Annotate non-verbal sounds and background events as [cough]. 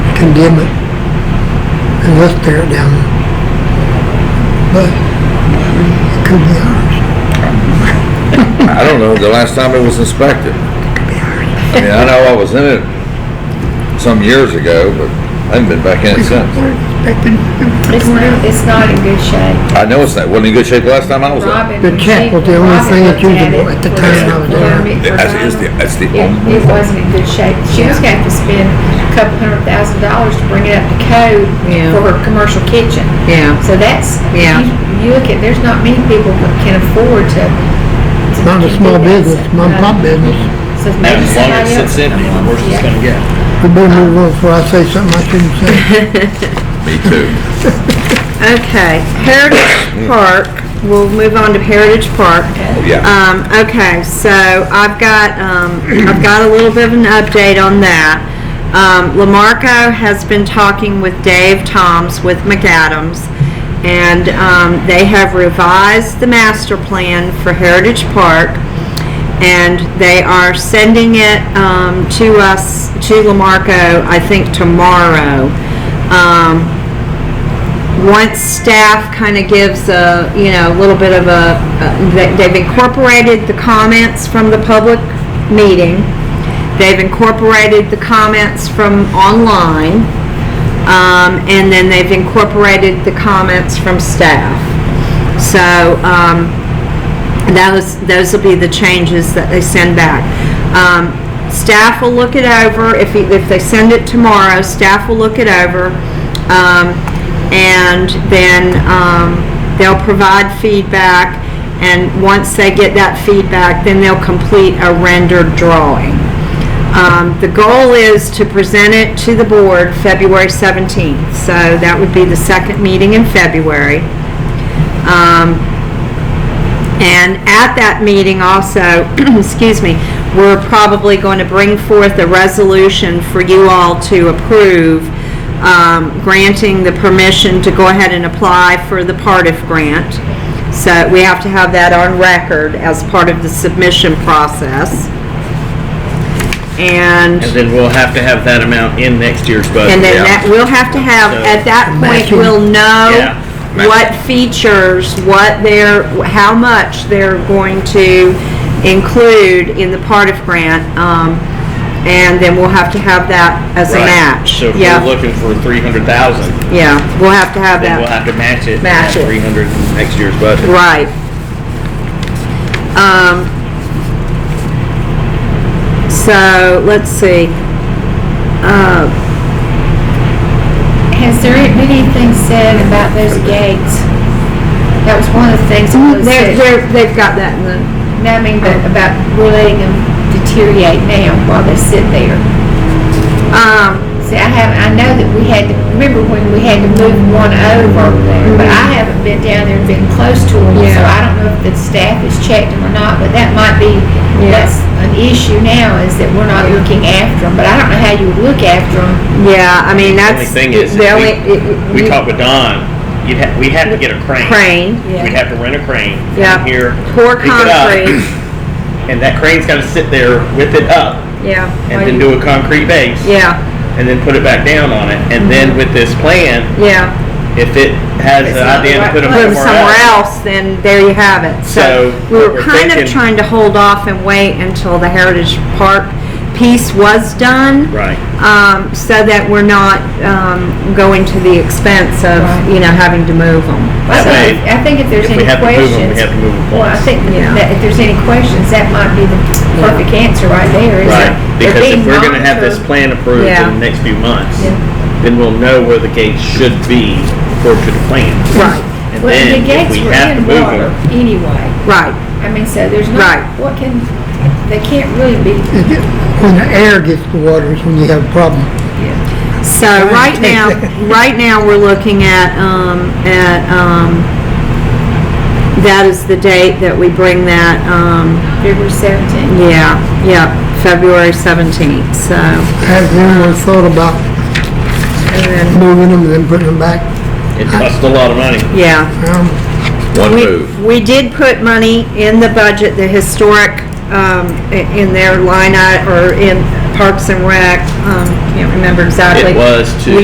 condemn it and let's tear it down. But it could be ours. I don't know, the last time it was inspected. I mean, I know I was in it some years ago, but I haven't been back in it since. We're expecting it It's tore not, down. it's not in good shape. I know it's not, wasn't in good shape the last time I was in it. Robin. The check was the only thing that's usable at the time I was there. That's, it's the, uh, that's the It, only it wasn't in good shape. She was gonna have to spend a couple hundred thousand dollars to bring it up to code Yeah. for her commercial kitchen. Yeah, So that's, Yeah. you, you look at, there's not many people that can afford to. to Not a do small that. business, mom and pop Um, business. So maybe As long as somebody it else. sits empty, the worse it's gonna get. We better move on before I say something I shouldn't say. me too. okay. Heritage Park, we'll move on to Heritage Park. Yeah, Um, okay, so I've got, um, I've got a little bit of an update on that. Um, Lamarco has been talking with Dave Toms with McAdams, and, um, they have revised the master plan for Heritage Park. and they are sending it um, to us to Lamarco, I think tomorrow. Um, once staff kind of gives a you know a little bit of a, a they- they've incorporated the comments from the public meeting, they've incorporated the comments from online, um, and then they've incorporated the comments from staff. So. Um, those, those will be the changes that they send back. Um, staff will look it over, if, he- if they send it tomorrow, staff will look it over. Um, and then, um, they'll provide feedback, and once they get that feedback, then they'll complete a rendered drawing. Um, the goal is to present it to the board February 17th, so that would be the second meeting in February. Um, and at that meeting also, [clears throat] excuse me, we're probably going to bring forth a resolution for you all to approve, um, granting the permission to go ahead and apply for the Partif grant. So we have to have that on record as part of the submission process. And, And then we'll have to have that amount in next year's budget. and then that, we'll have to have, at that point, we'll know Yeah. what features, what they're, how much they're going to include in the part of grant, um, and then we'll have to have that as a Right. match. So if Yeah, we're looking for three hundred thousand, Yeah, we'll have to have then that. we'll have to match it. Match it. Three hundred next year's budget. Right. Um, so, let's see, uh, Has there been anything said about those gates? That was one of the things that was they're, said. they're, they've got that in the. No, I mean, but about we're letting them deteriorate now while they sit there. Um, See, I haven't, I know that we had to, remember when we had to move one over, but Mm-hmm. I haven't been down there and been close to them, so Yeah. I don't know if the staff has checked them or not, but that might be, Yeah. that's an issue now, is that we're not looking after them, but I don't know how you would look after them. yeah, I mean, The only that's. thing is, the if only- we- it- we you- talked with Don, you'd have, we'd have to get a crane. Crane, Yeah. We'd have to rent a crane. come Yeah. Here. pour pick it up, concrete, [clears throat] And that crane's gotta sit there with it up yeah. and then do a concrete base. Yeah, Mm-hmm. And then put it back down on it. And then with this plan, yeah. if it has It's an not idea the right to put them Put 'em somewhere somewhere else. else, then there you have it. So So, we what were we're kind of thinking- trying to hold off and wait until the Heritage Park piece was done. Right. Um, so that we're not, um, going to the expense of, Right. you know, having to move them. I That think, way, I think if there's if we any have to move 'em, we questions. have to move 'em Well, I once. think Yeah. that if there's any questions, that might be the perfect answer right there, is Right, that. they're because if being we're gonna have this monitored. plan approved Yeah. in the next few months, Yeah. then we'll know where the gates should be according to the plan. Right, And Well, the then if gates we were have to in move water them, anyway. right. I mean, so there's Right. not, what can, they can't really be, It get- When the air gets to water is when you have a problem. So right now, right now, we're looking at, um, at, um, that is the date that we bring that, um, February seventeenth. yeah, yeah, February seventeenth, so. Has anyone thought about and then- moving them and then putting them back? it costs a lot of money. Yeah. Um, one We- move. We did put money in the budget, the historic, um, i- in their line, i- or in Parks and Rec, um, can't remember exactly. It was to We